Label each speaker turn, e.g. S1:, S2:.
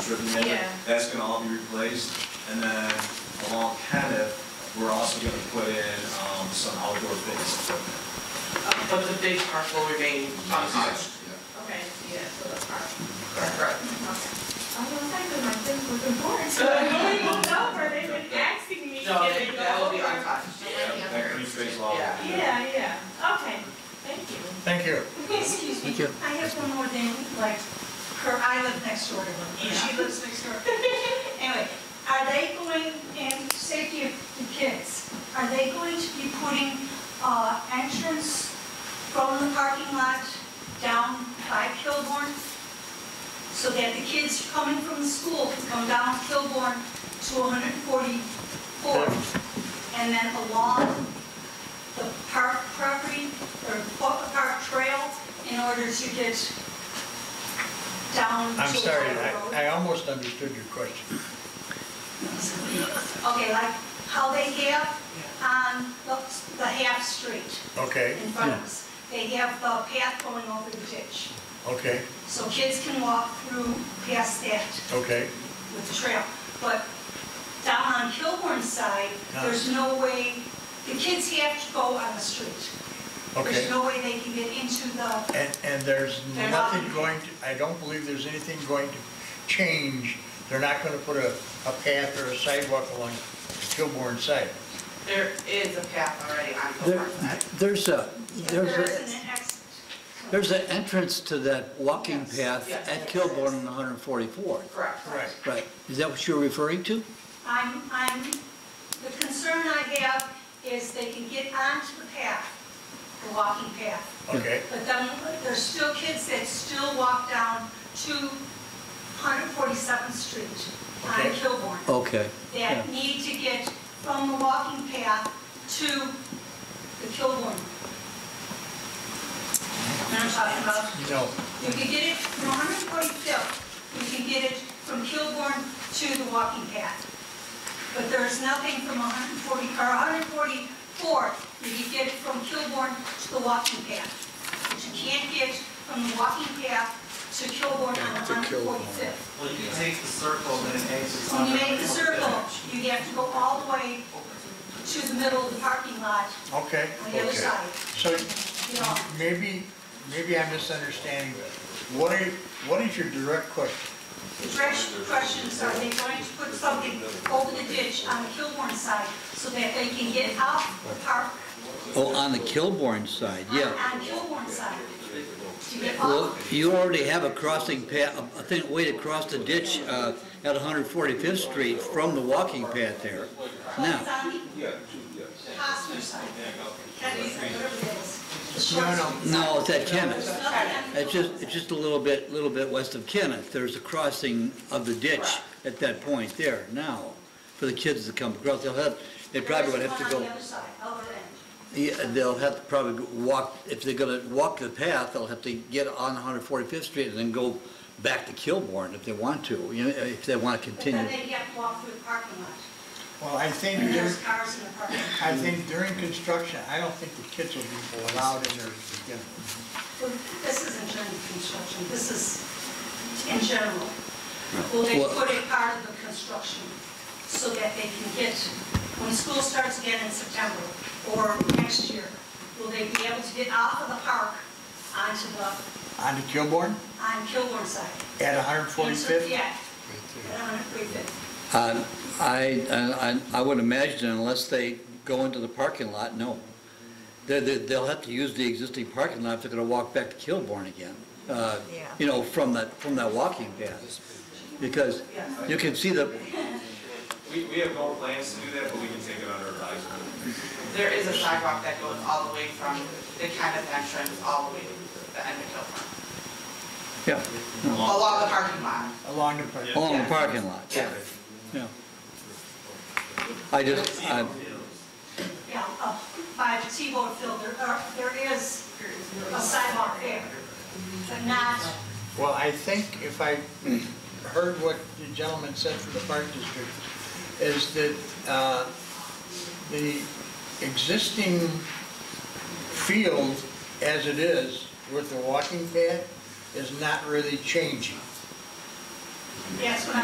S1: driven in.
S2: Yeah.
S1: That's gonna all be replaced. And then along Kenneth, we're also gonna put in, um, some outdoor fitness equipment.
S3: But the big park will remain untouched.
S2: Okay, yeah, so that's our.
S3: Correct.
S2: I'm gonna say that my things look important, so I really moved over, they've been asking me.
S3: No,
S2: can it
S3: that
S2: go
S3: will be
S2: over?
S3: untouched.
S1: That that three-phase law.
S3: Yeah.
S2: Yeah, yeah, okay, thank you.
S4: Thank you.
S5: Excuse me, I have one more thing, like, her, I live next door to her, and she lives next door. Anyway, are they going, and safety of the kids, are they going to be putting, uh, entrance from the parking lot down by Kilborn? So that the kids coming from the school can come down Kilborn to 144, and then along the park property, or the park trail, in order to get down to
S4: I'm sorry,
S5: Water Road?
S4: I, I almost understood your question.
S5: Okay, like how they have on the, the half street
S4: Okay,
S5: in front of us. They have the path going over the ditch.
S4: okay,
S5: So kids can walk through past that
S4: okay.
S5: with the trail. But down on Kilborn's side,
S4: No.
S5: there's no way, the kids have to go on the street. There's
S4: Okay,
S5: no way they can get into the,
S4: and, and there's
S5: They're not-
S4: nothing going to, I don't believe there's anything going to change. They're not gonna put a, a path or a sidewalk along Kilborn side.
S3: There is a path already on the
S6: There,
S3: park side.
S6: there's a,
S5: there
S6: there's a,
S5: isn't an exit.
S6: there's an entrance to that walking
S3: Yes,
S6: path
S3: yes.
S6: at Kilborn and 144th.
S3: Correct.
S4: Right.
S6: Right, is that what you're referring to?
S5: I'm, I'm, the concern I have is they can get onto the path, the walking path,
S4: Okay,
S5: but then there's still kids that still walk down to 147th Street on
S4: Okay.
S5: Kilbourne
S6: Okay.
S5: that
S6: yeah.
S5: need to get from the walking path to the Kilbourne. You know what I'm talking about?
S4: no,
S5: You can get it from 145th, you can get it from Kilbourne to the walking path. But there's nothing from 140, or 144, you can get it from Kilbourne to the walking path. But you can't get from the walking path to Kilbourne on
S4: To Kilbourne.
S5: 145th.
S7: Well, you can take the circle and then exit.
S5: When you make the circle, you have to go all the way to the middle of the parking lot
S4: okay,
S5: on the other
S4: okay.
S5: side,
S4: So
S5: you know.
S4: maybe, maybe I'm misunderstanding. What are, what is your direct question?
S5: The fresh questions, are they going to put something over the ditch on the Kilbourne side so that they can get out the park?
S6: Oh, on the Kilborn side,
S5: on-
S6: yeah.
S5: On Kilbourne side. To get
S6: Well,
S5: off,
S6: you already have a crossing path, a thing, way to cross the ditch uh, at 145th Street from the walking path there.
S5: but
S6: Now,
S5: it's on the Hosmer side. Kennedy's, whatever it is. The short
S4: No, no.
S5: side.
S6: no, it's at Kenneth.
S5: Nothing on
S6: It's just, it's just a little bit, little bit west of Kenneth, there's a crossing of the ditch at that point there now, for the kids to come across, they'll have, they probably would have to
S5: There's one
S6: go,
S5: on the other side, other end.
S6: yeah, they'll have to probably walk, if they're gonna walk the path, they'll have to get on 145th Street and then go back to Kilbourne if they want to, you know, if they wanna
S5: But then
S6: continue.
S5: they have to walk through the parking lot.
S4: Well, I think
S5: And there's
S4: there's,
S5: cars in the parking lot.
S4: I think during construction, I don't think the kids will be allowed in there to begin with.
S5: Well, This isn't during construction, this is in general. Will they
S6: Well-
S5: put it part of the construction so that they can get, when school starts again in September or next year, will they be able to get out of the park onto the,
S4: On to Kilborn
S5: on Kilburn side?
S4: at 145th?
S5: Yeah, at 145th.
S6: Uh, I, I- I I would imagine unless they go into the parking lot, no. They- they- They'll have to use the existing parking lot if they're going to walk back to Kilbourne again, uh, you know, from that, from that walking path. Because you can see the,
S1: We, we have no plans to do that, but we can take it under advisement.
S3: There is a sidewalk that goes all the way from the Kenneth entrance all the way to the end of Kilburn.
S6: yeah,
S3: Along the parking lot.
S4: Along the park.
S6: along the parking lot.
S3: Yes.
S6: Yeah. I just, I-
S5: Yeah, up by the T-Bone field, there are- there is a sidewalk there, but not
S4: Well, I think if I heard what the gentleman said for the Park District, is that uh, the existing field as it is with the walking path is not really changing.
S5: That's what